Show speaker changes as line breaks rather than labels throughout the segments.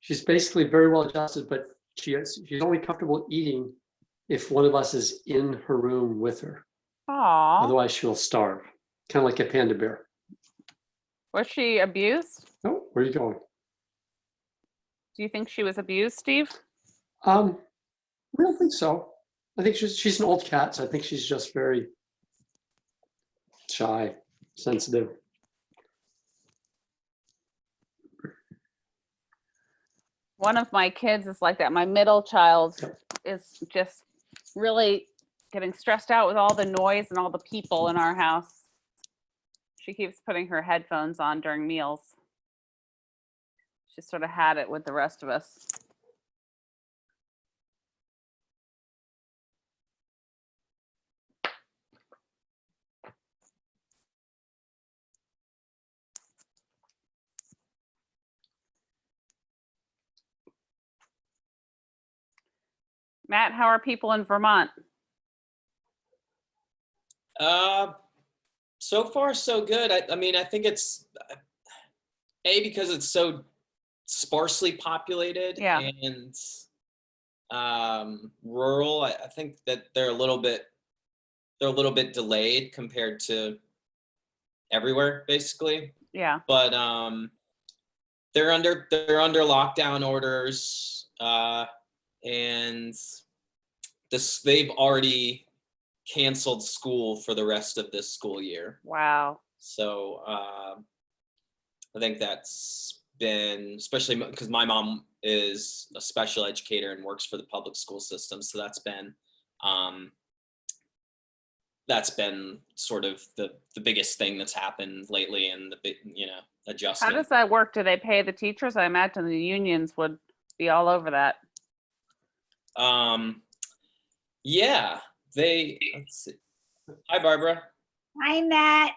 she's basically very well adjusted, but she is, she's only comfortable eating if one of us is in her room with her.
Aw,
Otherwise, she'll starve, kind of like a panda bear.
was she abused?
Oh, where are you going?
Do you think she was abused, Steve?
Um, I don't think so. I think she's she's an old cat, so I think she's just very shy, sensitive.
One of my kids is like that. My middle child
Yep.
is just really getting stressed out with all the noise and all the people in our house. She keeps putting her headphones on during meals. She sort of had it with the rest of us. Matt, how are people in Vermont?
Uh, so far so good. I, I mean, I think it's uh, a because it's so sparsely populated
Yeah.
and um, rural. I, I think that they're a little bit they're a little bit delayed compared to everywhere, basically
Yeah,
but um, they're under they're under lockdown orders, uh, and this they've already canceled school for the rest of this school year.
wow.
So uh, I think that's been especially because my mom is a special educator and works for the public school system, so that's been um, that's been sort of the the biggest thing that's happened lately, and the big you know
How
adjustment.
does that work? Do they pay the teachers? I imagine the unions would be all over that.
um, yeah, they. Let's see. Hi, Barbara.
Hi, Matt.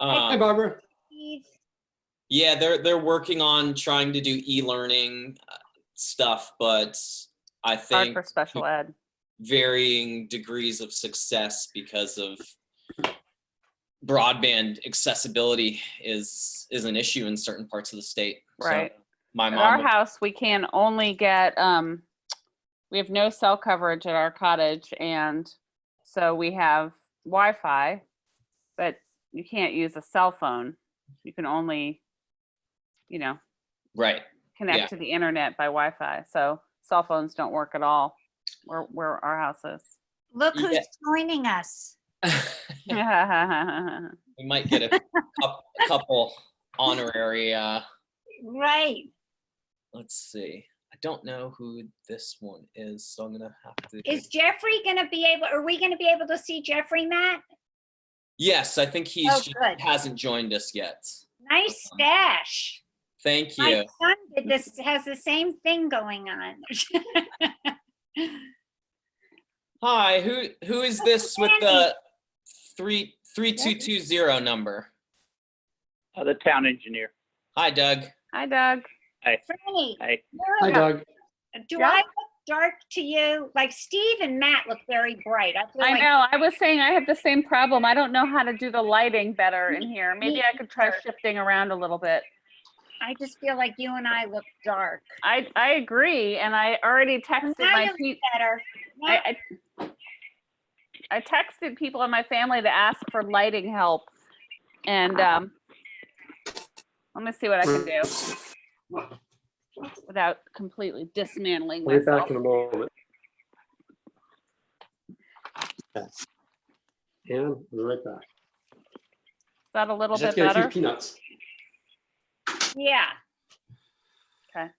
Hi,
Um,
Barbara.
Steve.
Yeah, they're they're working on trying to do e-learning uh, stuff, but I
Hard
think
for special ed.
varying degrees of success because of broadband accessibility is is an issue in certain parts of the state. So
Right.
My
At our
mom,
house, we can only get, um, we have no cell coverage at our cottage and so we have Wi-Fi, but you can't use a cell phone. You can only, you know,
right. Yeah.
connect to the internet by Wi-Fi. So cell phones don't work at all where, where our house
Look
Yeah.
who's joining us.
is.
we might get a, cou- a couple honorary uh
Right.
let's see. I don't know who this one is, so I'm gonna have to
Is Jeffrey gonna be able, are we gonna be able to see Jeffrey, Matt?
Yes, I think he's
Oh,
just
good.
hasn't joined us yet.
Nice stash.
Thank you.
My son did this, has the same thing going on.
Hi, who who is this with
Sandy.
the three three two two zero number?
Uh, the town engineer.
Hi, Doug.
Hi Doug.
Franny,
Hey,
Hi,
you're a-
Doug.
do
Yeah.
I look dark to you? Like Steve and Matt look very bright. I feel
I
like,
know, I was saying I have the same problem. I don't know how to do the lighting better in here. Maybe I could try
either.
shifting around a little bit.
I just feel like you and I look dark.
I, I agree, and I already texted
Now
my
you
pe-
Better.
I, I I texted people in my family to ask for lighting help. And um, let me see what I can do without completely dismantling
We'll be
myself.
back in a moment. Okay. And we're right back.
Is that a little
Just
bit
get a few
better?
peanuts.
Yeah.
Okay.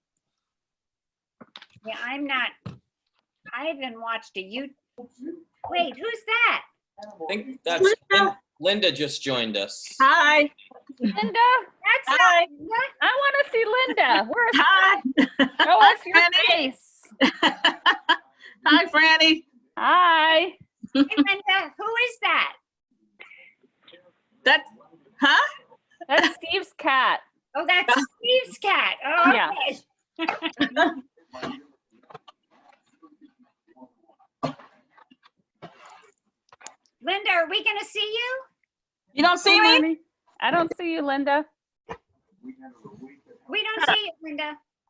Yeah, I'm not, I haven't watched a you, wait, who's that?
I think that's Lin- Linda just joined us.
Hi,
Linda,
That's
Ah.
hi,
not, what?
I want to see Linda. Where's,
hi.
show us your
Franny.
face.
Hi, Franny.
Hi.
Hey, Linda, who is that?
That, huh?
That's Steve's cat.
Oh, that's Steve's cat. Oh,
Yeah.
okay. Linda, are we gonna see you?
You don't see me?
I don't see you, Linda.
We don't see you, Linda.